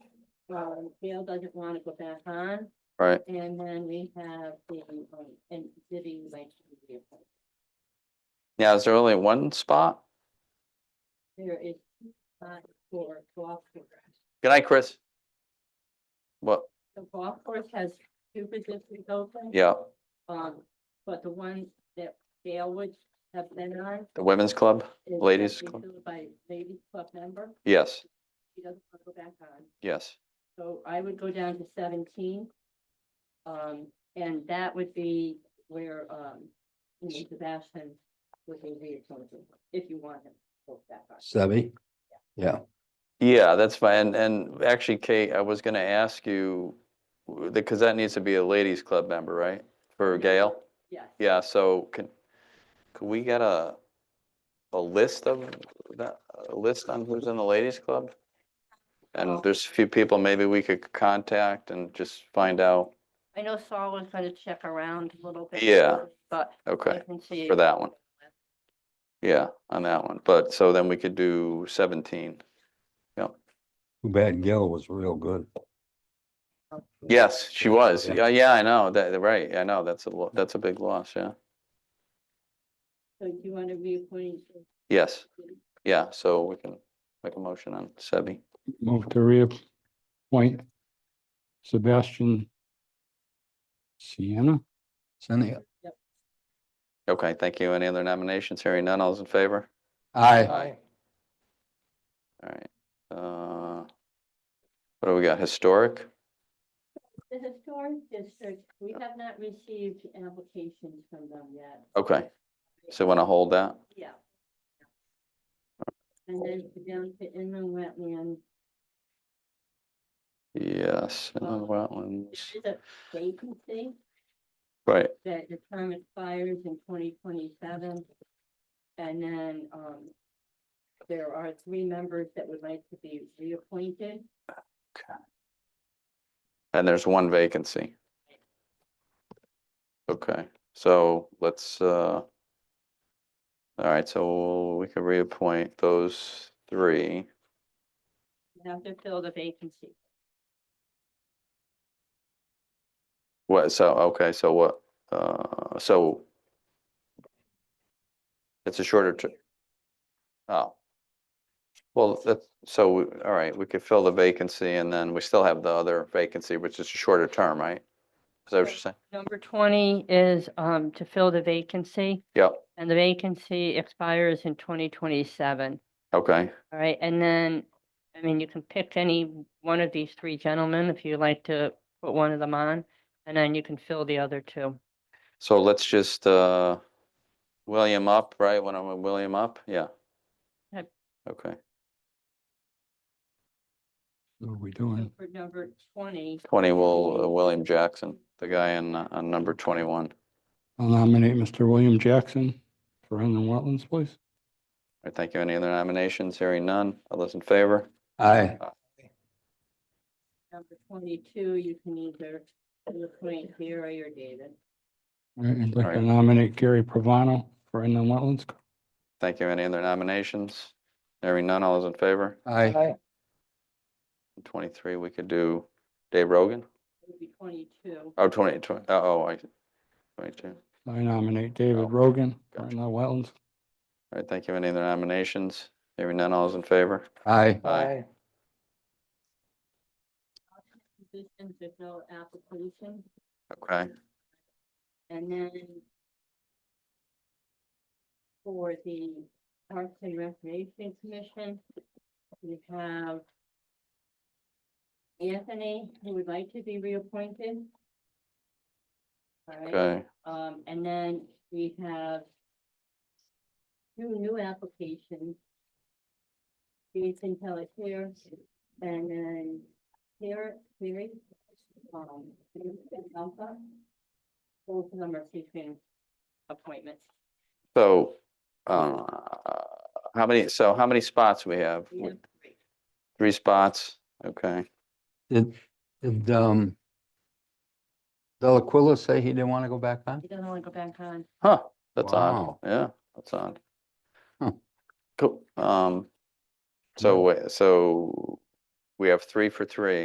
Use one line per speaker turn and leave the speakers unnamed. um, Gail doesn't want to go back on,
right?
and then we have the, um, and Vivi would like to be reappointed.
Yeah, is there only one spot?
There is two spots for golf course.
Good night, Chris. What,
The golf course has two positions open.
yeah,
Um, but the one that Gail would have been on.
the women's club?
is
Ladies
currently
club.
filled By ladies club member,
Yes,
she doesn't want to go back on.
yes.
So I would go down to seventeen. Um, and that would be where, um, you know, Sebastian would be reappointed, if you want him. to go back on.
Sebby? Yeah,
Yeah, that's fine. And, and actually, Kate, I was gonna ask you, w- because that needs to be a ladies' club member, right? For Gail?
Yes,
Yeah, so can, could we get a, a list of, that a list on who's in the ladies' club?
Well-
And there's a few people maybe we could contact and just find out,
I know Saul was gonna check around a little bit.
Yeah.
But I
okay,
can see.
for that one. yeah, on that one. But, so then we could do seventeen.
too bad Gil was real good.
Um,
Yes, she was.
Yeah.
Yeah, yeah, I know. That, right, I know. That's a, lo- that's a big loss, yeah.
So do you want to reappoint?
Yes, yeah, so we can make a motion on Sebi.
Move to reappoint Sebastian Sienna.
Cindy,
Okay, thank you. Any other nominations? Hearing none, all's in favor?
aye,
Aye. All right, uh, what do we got? Historic?
The historic district, we have not received applications from them yet.
Okay, so want to hold that?
Yeah. And then down to inland wetlands,
Yes, uh,
Um,
wetlands,
there is a vacancy.
right,
that the term expires in twenty twenty-seven. And then, um, there are three members that would like to be reappointed.
and there's one vacancy. Okay, so let's, uh, all right, so we can reappoint those three.
You have to fill the vacancy.
What, so, okay, so what, uh, so it's a shorter term. Oh. Well, that's so, we- all right, we could fill the vacancy and then we still have the other vacancy, which is a shorter term, right? Is that what you're
Right.
saying?
Number twenty is, um, to fill the vacancy,
Yep,
and the vacancy expires in twenty twenty-seven.
okay,
All right, and then, I mean, you can pick any one of these three gentlemen if you like to put one of them on, and then you can fill the other two.
so let's just, uh, William up, right, when I'm with William up, yeah.
Yep.
Okay,
What are we doing?
For number twenty,
twenty will, uh, William Jackson, the guy in, uh, on number twenty-one.
I'll nominate Mr. William Jackson for inland wetlands, please.
All right, thank you. Any other nominations? Hearing none. All those in favor?
aye,
Number twenty-two, you can either appoint Gary or David.
All right, I'd like to
Alright.
nominate Gary Provano for inland wetlands.
Thank you. Any other nominations? Hearing none. All those in favor?
aye,
Twenty-three, we could do Dave Rogan.
It would be twenty-two.
Oh, 20 20 uh, oh, I, twenty-two. All
I nominate David
Oh,
Rogan for
gotcha.
inland wetlands.
right, thank you. Any other nominations? Hearing none. All those in favor?
aye,
Aye.
Positions, there's no application,
Okay,
and then for the Parks and Recreation Commission, we have Anthony, who would like to be reappointed. All right.
okay.
Um, and then we have two new applications. Jason Pelletier and then Sarah Cleary. um, and Alpha. Both of them are seeking appointments.
So, uh, how many, so how many spots we have?
We have three.
Three spots? Okay.
did, did, um. Delaquila say he didn't want to go back on?
He doesn't want to go back on.
Huh, that's odd.
Wow.
Yeah, that's odd.
Huh. Hmm.
Cool. Um, so, wait, so we have three for three.